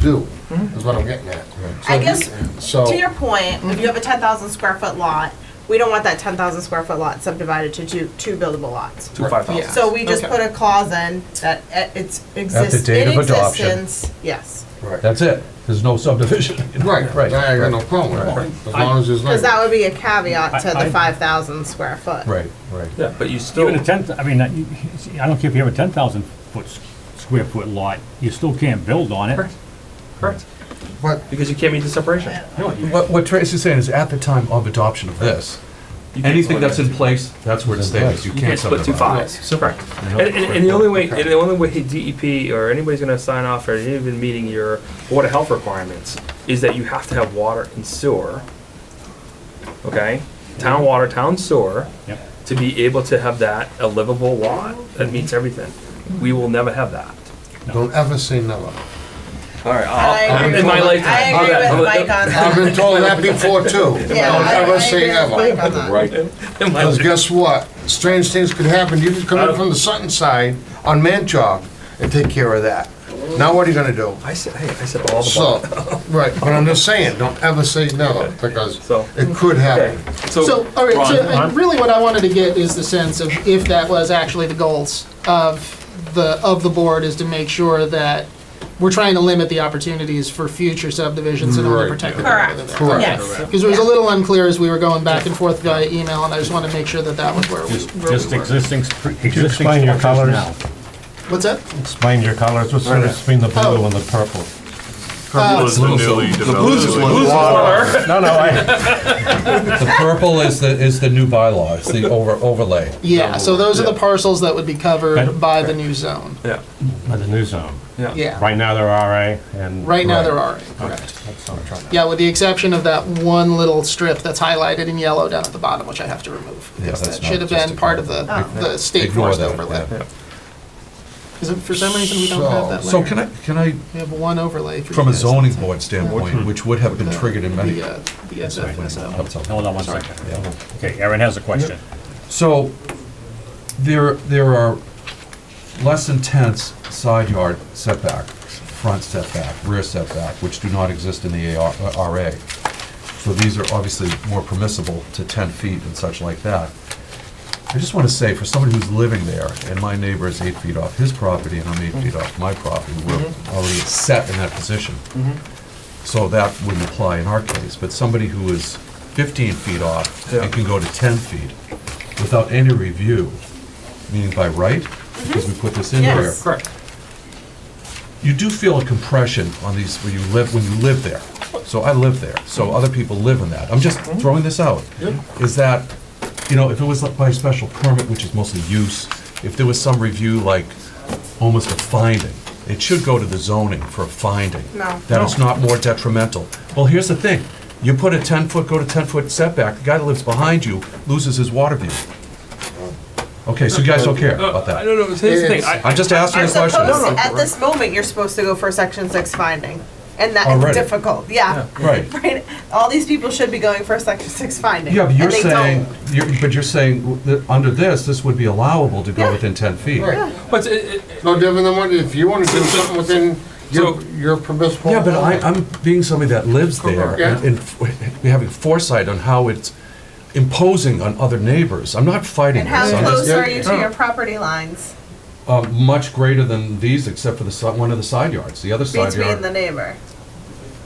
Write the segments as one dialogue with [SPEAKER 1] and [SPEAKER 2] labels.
[SPEAKER 1] do, is what I'm getting at. So
[SPEAKER 2] I
[SPEAKER 1] if you-
[SPEAKER 2] guess,
[SPEAKER 1] so-
[SPEAKER 2] To your point, if you have a ten thousand square foot lot, we don't want that ten thousand square foot lot subdivided to two, two buildable lots.
[SPEAKER 3] to five thousand.
[SPEAKER 4] Yeah.
[SPEAKER 2] So we just
[SPEAKER 4] Okay.
[SPEAKER 2] put a clause in that it- it's exists
[SPEAKER 5] date
[SPEAKER 2] in
[SPEAKER 5] of adoption.
[SPEAKER 2] existence, yes.
[SPEAKER 1] Right,
[SPEAKER 5] That's it. There's no subdivision. you know?
[SPEAKER 1] right,
[SPEAKER 5] Right.
[SPEAKER 1] I got no problem with
[SPEAKER 5] Right.
[SPEAKER 1] that, as long as there's
[SPEAKER 2] Cause that
[SPEAKER 1] not,
[SPEAKER 2] would be a caveat to
[SPEAKER 6] I-
[SPEAKER 2] the
[SPEAKER 6] I-
[SPEAKER 2] five thousand square foot.
[SPEAKER 5] Right, right.
[SPEAKER 3] Yeah, but you still,
[SPEAKER 6] Even a ten, I mean, uh, you- I don't care if you have a ten thousand foot, s- square foot lot, you still can't build on it.
[SPEAKER 3] Correct. correct,
[SPEAKER 1] but
[SPEAKER 3] because you can't meet the separation.
[SPEAKER 6] No, you-
[SPEAKER 7] What, what Tracy's saying is at the time of adoption of this,
[SPEAKER 3] You can't
[SPEAKER 7] anything
[SPEAKER 3] split
[SPEAKER 7] that's in
[SPEAKER 3] it.
[SPEAKER 7] place, that's where it
[SPEAKER 5] It's in
[SPEAKER 7] stays. You
[SPEAKER 3] You can't
[SPEAKER 7] can't
[SPEAKER 3] split two
[SPEAKER 7] subdivide.
[SPEAKER 3] fives, correct. And, and, and the only way, and the only way DEP or anybody's gonna sign off or even meeting your water health requirements is that you have to have water and sewer. Okay, town water, town sewer,
[SPEAKER 6] Yep.
[SPEAKER 3] to be able to have that a livable lot that meets everything. We will never have that.
[SPEAKER 1] don't ever say never.
[SPEAKER 3] All right,
[SPEAKER 2] I
[SPEAKER 3] I'll-
[SPEAKER 2] agree
[SPEAKER 3] in my
[SPEAKER 2] with-
[SPEAKER 3] lifetime.
[SPEAKER 2] I
[SPEAKER 3] I'll
[SPEAKER 2] agree
[SPEAKER 3] let- I'll
[SPEAKER 2] with
[SPEAKER 3] let-
[SPEAKER 2] Mike on
[SPEAKER 1] I've
[SPEAKER 2] that.
[SPEAKER 1] been told that before too.
[SPEAKER 2] Yeah,
[SPEAKER 1] Don't
[SPEAKER 2] I-
[SPEAKER 1] ever
[SPEAKER 2] I
[SPEAKER 1] say
[SPEAKER 2] agree with Mike
[SPEAKER 1] ever.
[SPEAKER 2] on that.
[SPEAKER 3] in my
[SPEAKER 1] Because
[SPEAKER 3] lifetime.
[SPEAKER 1] guess what? Strange things could happen. You could come in from the Sutton side on Manchog and take care of that. Now what are you gonna do?
[SPEAKER 3] I said, hey, I said all the.
[SPEAKER 1] So, right, but I'm just saying, don't ever say never, because
[SPEAKER 3] So-
[SPEAKER 1] it could happen.
[SPEAKER 4] So, all right, so
[SPEAKER 3] Ron,
[SPEAKER 4] uh, really what I wanted to get is the sense of if that was actually the goals of the, of the board is to make sure that we're trying to limit the opportunities for future subdivisions in order to
[SPEAKER 1] Right.
[SPEAKER 4] protect the
[SPEAKER 2] Correct,
[SPEAKER 1] Correct.
[SPEAKER 2] yes.
[SPEAKER 4] Because it was a little unclear as we were going back and forth via email, and I just wanted to make sure that that was where we,
[SPEAKER 6] Just,
[SPEAKER 4] where
[SPEAKER 6] just
[SPEAKER 4] we were.
[SPEAKER 6] existing, str- existing
[SPEAKER 5] explain your colours?
[SPEAKER 6] structures now.
[SPEAKER 4] What's that?
[SPEAKER 5] Explain your colors, what's the difference between the
[SPEAKER 4] Oh.
[SPEAKER 5] blue and the purple?
[SPEAKER 4] Uh,
[SPEAKER 8] Purple is newly
[SPEAKER 7] blues is
[SPEAKER 8] developed.
[SPEAKER 7] one.
[SPEAKER 5] No, no, I. The purple is the, is the new bylaw, it's the over, overlay.
[SPEAKER 4] Yeah, so those are the parcels that would be covered by the new zone.
[SPEAKER 3] Yeah,
[SPEAKER 5] Of the new zone.
[SPEAKER 3] yeah.
[SPEAKER 4] Yeah,
[SPEAKER 5] Right now, they're RA and.
[SPEAKER 4] right now there are, correct.
[SPEAKER 5] That's what I'm trying to-
[SPEAKER 4] Yeah, with the exception of that one little strip that's highlighted in yellow down at the bottom, which I have to remove.
[SPEAKER 5] Yeah,
[SPEAKER 4] because
[SPEAKER 5] that's
[SPEAKER 4] That should have
[SPEAKER 5] not- just
[SPEAKER 4] been part of the,
[SPEAKER 2] ignore-
[SPEAKER 4] the state
[SPEAKER 5] Ignore
[SPEAKER 4] forest
[SPEAKER 5] that,
[SPEAKER 4] overlay.
[SPEAKER 5] yeah.
[SPEAKER 4] Is it, for some reason, we don't have that
[SPEAKER 1] So-
[SPEAKER 4] layer?
[SPEAKER 7] So can I, can I,
[SPEAKER 4] We have one overlay for you
[SPEAKER 7] from a
[SPEAKER 4] guys.
[SPEAKER 7] zoning board standpoint, which would have been triggered in many.
[SPEAKER 4] The, uh, the SFSO.
[SPEAKER 7] That's all.
[SPEAKER 6] Hold on one second. Okay, Aaron has a question.
[SPEAKER 7] So there, there are less intense side yard setback, front setback, rear setback, which do not exist in the AR uh, RA. So these are obviously more permissible to 10 feet and such like that. I just want to say, for somebody who's living there, and my neighbor is eight feet off his property, and I'm
[SPEAKER 3] Mm-hmm.
[SPEAKER 7] eight feet off my property, we're already set in that position.
[SPEAKER 3] Mm-hmm.
[SPEAKER 7] So that wouldn't apply in our case, but somebody who is 15 feet off
[SPEAKER 3] Yeah.
[SPEAKER 7] and can go to 10 feet without any review, meaning by right, because we put this in
[SPEAKER 2] Yes.
[SPEAKER 7] there.
[SPEAKER 3] Mm-hmm. Correct.
[SPEAKER 7] You do feel a compression on these, when you live, when you live there. So I live there,
[SPEAKER 3] Mm-hmm.
[SPEAKER 7] so other people live in that. I'm just throwing this out. Is that, you know, if it was like by special permit, which is mostly use, if there was some review, like almost a finding, it should go to the zoning for a finding.
[SPEAKER 2] No.
[SPEAKER 7] That it's not more detrimental. Well, here's the thing, you put a ten-foot, go to ten-foot setback, the guy that lives behind you loses his water view. Okay, so you guys don't care about
[SPEAKER 3] I
[SPEAKER 7] that?
[SPEAKER 3] don't know, here's the thing, I,
[SPEAKER 7] I'm just asking
[SPEAKER 2] You're
[SPEAKER 7] a question.
[SPEAKER 2] supposed, at this moment, you're supposed to go for section six finding, and that is
[SPEAKER 7] Already.
[SPEAKER 2] difficult, yeah.
[SPEAKER 7] Right.
[SPEAKER 2] Right, all these people should be going for a section six finding.
[SPEAKER 7] Yeah, but you're
[SPEAKER 2] and they don't.
[SPEAKER 7] saying, you're, but you're saying that under this, this would be allowable to go
[SPEAKER 2] Yeah.
[SPEAKER 7] within ten feet.
[SPEAKER 1] Right.
[SPEAKER 3] But uh, it, it,
[SPEAKER 1] No different than what, if you wanna do something within your,
[SPEAKER 3] So-
[SPEAKER 1] your permissible.
[SPEAKER 7] Yeah, but I, I'm being somebody that lives there
[SPEAKER 1] Yeah.
[SPEAKER 7] and, and f- having foresight on how it's imposing on other neighbors. I'm not fighting
[SPEAKER 2] And how
[SPEAKER 7] this. I'm
[SPEAKER 2] close
[SPEAKER 7] just,
[SPEAKER 2] are you to your property lines
[SPEAKER 7] uh, much greater than these, except for the, si- one of the side yards, the other side
[SPEAKER 2] between the
[SPEAKER 7] yard.
[SPEAKER 2] neighbor?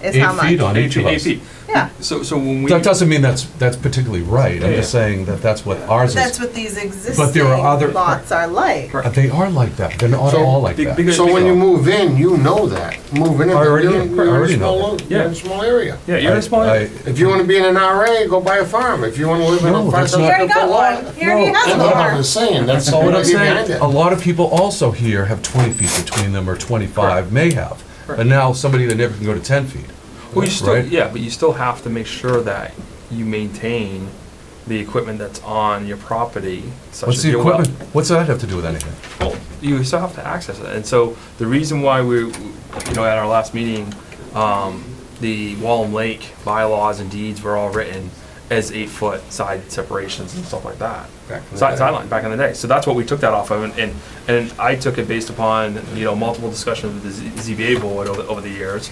[SPEAKER 2] Is how
[SPEAKER 7] Eight
[SPEAKER 2] much?
[SPEAKER 7] feet on each of
[SPEAKER 3] eight
[SPEAKER 7] us.
[SPEAKER 3] feet.
[SPEAKER 2] Yeah,
[SPEAKER 3] So, so when we.
[SPEAKER 7] That doesn't mean that's, that's particularly right. I'm
[SPEAKER 3] Yeah.
[SPEAKER 7] just saying that that's what ours
[SPEAKER 2] that's
[SPEAKER 7] is.
[SPEAKER 2] what these
[SPEAKER 7] But
[SPEAKER 2] existing
[SPEAKER 7] there are other-
[SPEAKER 2] lots are like.
[SPEAKER 7] Uh, They are like that. They're not
[SPEAKER 1] So-
[SPEAKER 7] all like
[SPEAKER 3] Be-
[SPEAKER 7] that.
[SPEAKER 3] because-
[SPEAKER 1] So when you move in, you know that, moving in,
[SPEAKER 7] I already-
[SPEAKER 1] you're in
[SPEAKER 7] I
[SPEAKER 1] you're in a
[SPEAKER 7] already know
[SPEAKER 1] small,
[SPEAKER 7] that.
[SPEAKER 1] you're in
[SPEAKER 3] Yeah.
[SPEAKER 1] a small area.
[SPEAKER 3] Yeah, you're
[SPEAKER 7] I-
[SPEAKER 3] a small.
[SPEAKER 7] I-
[SPEAKER 1] If you wanna be in an RA, go buy a farm, if you wanna live in
[SPEAKER 7] No,
[SPEAKER 1] a five
[SPEAKER 7] that's not-
[SPEAKER 2] He already
[SPEAKER 1] thousand foot
[SPEAKER 2] got
[SPEAKER 1] lot.
[SPEAKER 2] one, he already
[SPEAKER 7] No,
[SPEAKER 2] has
[SPEAKER 1] That's
[SPEAKER 2] a
[SPEAKER 1] what
[SPEAKER 2] farm.
[SPEAKER 1] I'm just saying, that's
[SPEAKER 7] Well, what I'm
[SPEAKER 1] what you behind
[SPEAKER 7] saying,
[SPEAKER 1] it.
[SPEAKER 7] a lot of people also here have 20 feet between them, or 25, may have. And now somebody that never can go to 10 feet.
[SPEAKER 3] Well, you still,
[SPEAKER 7] right?
[SPEAKER 3] yeah, but you still have to make sure that you maintain the equipment that's on your property. Such
[SPEAKER 7] What's
[SPEAKER 3] as
[SPEAKER 7] the
[SPEAKER 3] your well.
[SPEAKER 7] equipment, what's that have to do with anything?
[SPEAKER 3] Well, you still have to access it, and so the reason why we, you know, at our last meeting, um, the Wallem Lake bylaws and deeds were all written as eight foot side separations and stuff like that.
[SPEAKER 7] Back in the
[SPEAKER 3] Side,
[SPEAKER 7] day.
[SPEAKER 3] sideline back in the day. So that's what we took that off of, and, and, and I took it based upon, you know, multiple discussions with the Z- ZBA board over, over the years.